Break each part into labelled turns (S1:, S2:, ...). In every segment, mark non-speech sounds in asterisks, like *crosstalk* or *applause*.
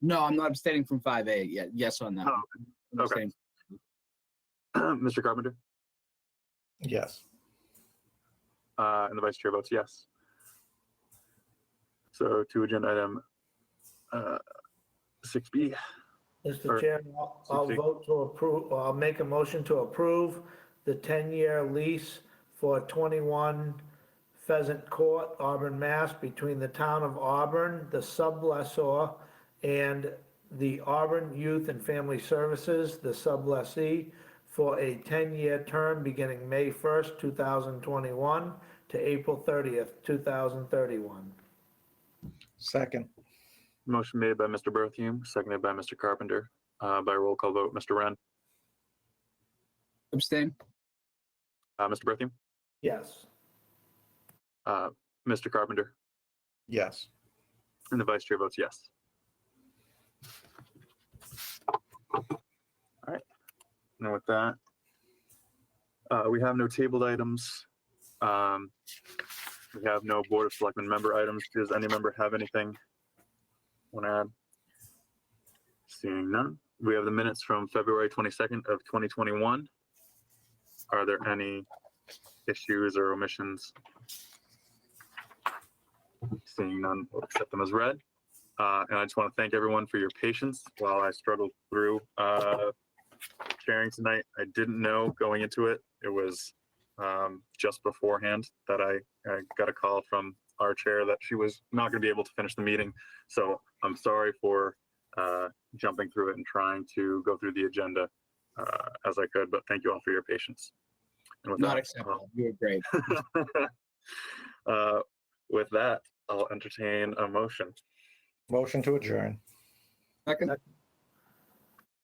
S1: No, I'm not abstaining from five A. Yeah, yes on that.
S2: Oh,
S1: one. I'm
S2: okay.
S1: abstaining.
S2: *clears throat* Mr. Carpenter,
S3: Yes.
S2: uh, and the vice chair votes yes. So to agenda item uh, 6B, Or-
S4: Mr. Chairman, I'll- I'll
S2: Sixty.
S4: vote to approve, or I'll make a motion to approve the 10-year lease for 21 Pheasant Court, Auburn, Mass, between the town of Auburn, the sublessor, and the Auburn Youth and Family Services, the sublessee, for a 10-year term beginning May 1st, 2021 to April 30th, 2031.
S3: Second.
S2: motion made by Mr. Bertheum, seconded by Mr. Carpenter, uh, by roll call vote, Mr. Ren,
S1: Abstain.
S2: uh, Mr. Bertheum,
S4: Yes.
S2: uh, Mr. Carpenter,
S3: Yes.
S2: and the vice chair votes yes. All right, and with that, uh, we have no tabled items. Um, we have no board of selectmen member items. Does any member have anything? Want to add? Seeing none, we have the minutes from February twenty-second of twenty twenty-one. Are there any issues or omissions? Seeing none, we'll accept them as read. Uh, and I just want to thank everyone for your patience while I struggled through, uh, chairing tonight. I didn't know going into it. It was, um, just beforehand that I, I got a call from our chair that she was not going to be able to finish the meeting. So I'm sorry for, uh, jumping through it and trying to go through the agenda, uh, as I could, but thank you all for your patience. And with
S1: Not
S2: that, I'll-
S1: acceptable. You were great.
S2: *laughs* uh, with that, I'll entertain a motion.
S3: Motion to adjourn.
S1: Second.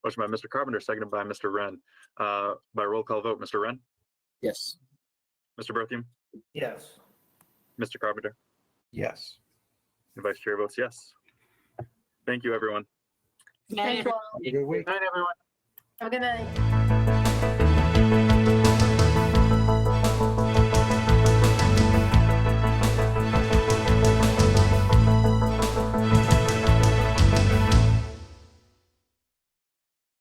S2: Motion by Mr. Carpenter, seconded by Mr. Wren. Uh, by roll call vote, Mr. Wren,
S1: Yes.
S2: Mr. Bertheum,
S4: Yes.
S2: Mr. Carpenter,
S3: Yes.
S2: and Vice Chair votes yes. Thank you, everyone.
S5: Thank you all.
S3: Good week.
S2: Good night, everyone.
S5: Have a good night.
S3: Good